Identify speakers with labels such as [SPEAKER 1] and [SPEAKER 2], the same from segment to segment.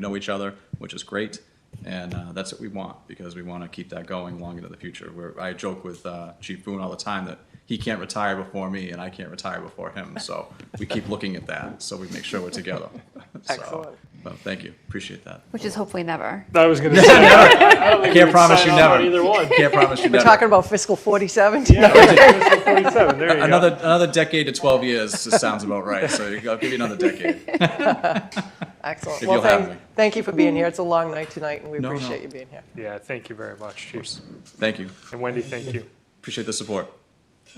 [SPEAKER 1] know each other, which is great. And uh, that's what we want because we want to keep that going long into the future. Where I joke with uh, Chief Boone all the time that he can't retire before me and I can't retire before him. So we keep looking at that so we make sure we're together. So,
[SPEAKER 2] Excellent.
[SPEAKER 1] But thank you. Appreciate that.
[SPEAKER 3] Which is hopefully never.
[SPEAKER 2] I was going to say,
[SPEAKER 1] I can't promise you
[SPEAKER 2] sign off
[SPEAKER 1] never.
[SPEAKER 2] on either one.
[SPEAKER 1] Can't promise you never.
[SPEAKER 4] Talking about fiscal 47?
[SPEAKER 2] fiscal 47, there you
[SPEAKER 1] another
[SPEAKER 2] go.
[SPEAKER 1] another decade to 12 years just sounds about right. So I'll give you another decade.
[SPEAKER 4] Excellent.
[SPEAKER 1] If
[SPEAKER 4] Well,
[SPEAKER 1] you'll have
[SPEAKER 4] thank-
[SPEAKER 1] me.
[SPEAKER 4] Thank you for being here. It's a long night tonight, and we
[SPEAKER 1] No, no.
[SPEAKER 4] appreciate you being here.
[SPEAKER 2] Yeah, thank you very much, Chief.
[SPEAKER 1] Thank you.
[SPEAKER 2] And Wendy, thank you.
[SPEAKER 1] Appreciate the support.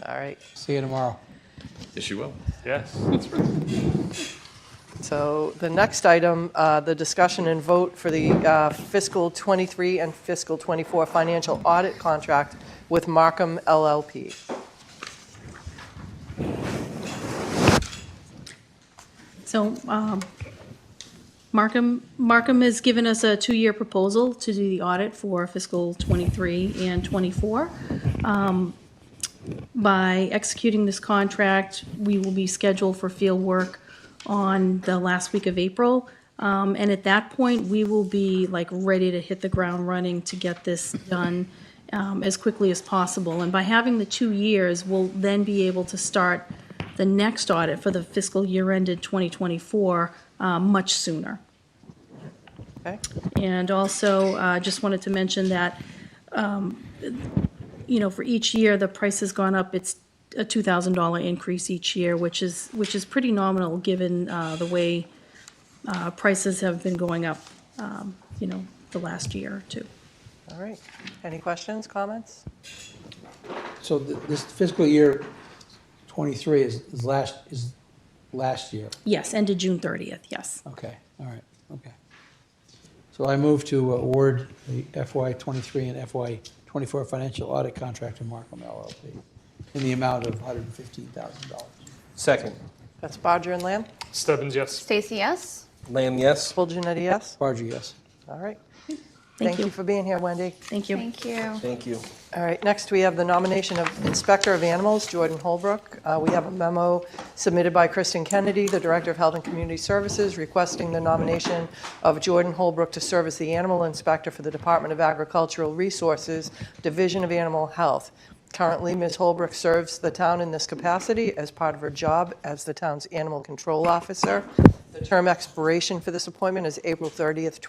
[SPEAKER 4] All right.
[SPEAKER 5] See you tomorrow.
[SPEAKER 1] Yes, you will.
[SPEAKER 2] Yes.
[SPEAKER 4] So the next item, uh, the discussion and vote for the uh, fiscal '23 and fiscal '24 financial audit contract with Markham LLP.
[SPEAKER 6] So um, Markham, Markham has given us a two-year proposal to do the audit for fiscal '23 and '24. By executing this contract, we will be scheduled for field work on the last week of April. Um, And at that point, we will be like ready to hit the ground running to get this done um, as quickly as possible. And by having the two years, we'll then be able to start the next audit for the fiscal year ended 2024 uh, much sooner.
[SPEAKER 4] Okay?
[SPEAKER 6] And also, uh, just wanted to mention that, um, you know, for each year, the price has gone up. It's a $2,000 increase each year, which is, which is pretty nominal, given uh, the way uh, prices have been going up, um, you know, the last year or two.
[SPEAKER 4] All right. Any questions, comments?
[SPEAKER 5] So th- this fiscal year '23 is is last, is last year.
[SPEAKER 6] Yes, ended June 30th, yes.
[SPEAKER 5] Okay, all right, okay. So I move to award the FY '23 and FY '24 financial audit contract to Markham LLP in the amount of $115,000.
[SPEAKER 7] Second.
[SPEAKER 4] That's Bodger and Lamb.
[SPEAKER 2] Stebbins, yes.
[SPEAKER 3] Stacy, yes?
[SPEAKER 7] Lamb, yes.
[SPEAKER 4] Full Janetti, yes?
[SPEAKER 5] Barger, yes.
[SPEAKER 4] All right.
[SPEAKER 6] Thank
[SPEAKER 4] Thank you
[SPEAKER 6] you.
[SPEAKER 4] for being here, Wendy.
[SPEAKER 6] Thank you.
[SPEAKER 3] Thank you.
[SPEAKER 7] Thank you.
[SPEAKER 4] All right, next we have the nomination of Inspector of Animals, Jordan Holbrook. Uh, We have a memo submitted by Kristen Kennedy, the Director of Health and Community Services, requesting the nomination of Jordan Holbrook to serve as the Animal Inspector for the Department of Agricultural Resources, Division of Animal Health. Currently, Ms. Holbrook serves the town in this capacity as part of her job as the town's Animal Control Officer. The term expiration for this appointment is April 30th,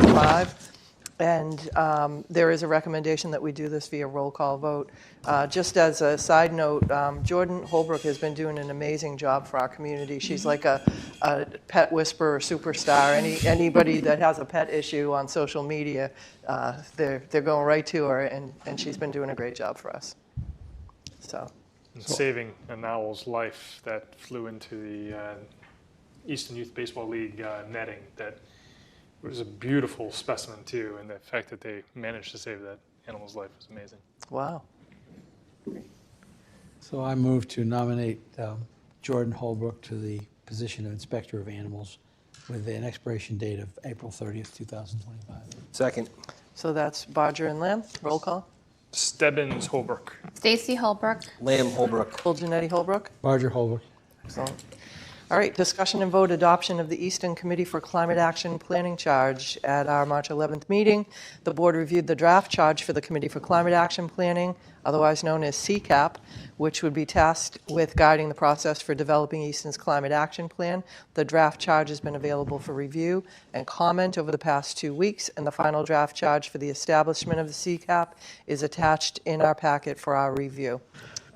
[SPEAKER 4] 2025. And um, there is a recommendation that we do this via roll call vote. Uh, Just as a side note, um, Jordan Holbrook has been doing an amazing job for our community. She's like a a pet whisperer superstar. Any Anybody that has a pet issue on social media, uh, they're they're going right to her, and and she's been doing a great job for us. So,
[SPEAKER 2] And Saving an owl's life that flew into the uh, Eastern Youth Baseball League uh, netting. That was a beautiful specimen, too. And the fact that they managed to save that animal's life was amazing.
[SPEAKER 4] wow.
[SPEAKER 5] So I move to nominate um, Jordan Holbrook to the position of Inspector of Animals with an expiration date of April 30th, 2025.
[SPEAKER 7] Second.
[SPEAKER 4] So that's Bodger and Lamb, roll call.
[SPEAKER 2] Stebbins, Holbrook.
[SPEAKER 3] Stacy Holbrook,
[SPEAKER 7] Lamb, Holbrook.
[SPEAKER 4] Full Janetti Holbrook?
[SPEAKER 5] Barger, Holbrook,
[SPEAKER 4] Excellent. All right, discussion and vote adoption of the Easton Committee for Climate Action Planning Charge. At our March 11th meeting, the board reviewed the draft charge for the Committee for Climate Action Planning, otherwise known as CCAP, which would be tasked with guiding the process for developing Easton's climate action plan. The draft charge has been available for review and comment over the past two weeks, and the final draft charge for the establishment of the CCAP is attached in our packet for our review.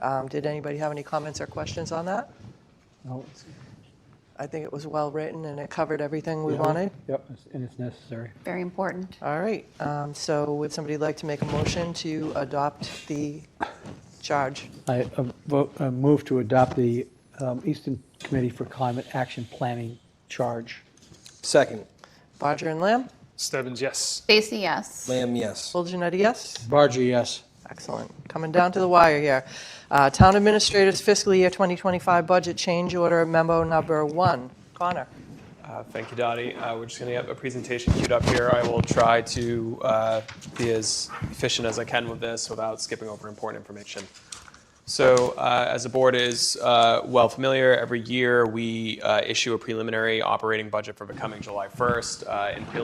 [SPEAKER 4] Um, Did anybody have any comments or questions on that?
[SPEAKER 5] no, it's-
[SPEAKER 4] I think it was well-written and it covered everything we wanted.
[SPEAKER 5] Yep, it's- and it's necessary.
[SPEAKER 3] very important.
[SPEAKER 4] All right, um, so would somebody like to make a motion to adopt the charge?
[SPEAKER 5] I uh, vote, uh, move to adopt the um, Eastern Committee for Climate Action Planning charge.
[SPEAKER 7] Second.
[SPEAKER 4] Bodger and Lamb?
[SPEAKER 2] Stebbins, yes.
[SPEAKER 3] Stacy, yes?
[SPEAKER 7] Lamb, yes.
[SPEAKER 4] Full Janetti, yes?
[SPEAKER 5] Barger, yes.
[SPEAKER 4] Excellent. Coming down to the wire here. Uh, Town Administrator's Fiscal Year 2025 Budget Change Order Memo Number One. Connor?
[SPEAKER 8] Uh, Thank you, Dottie. Uh, We're just going to have a presentation queued up here. I will try to uh, be as efficient as I can with this without skipping over important information. So, uh, as the board is uh, well familiar, every year we uh, issue a preliminary operating budget for the coming July 1st. uh, and preliminary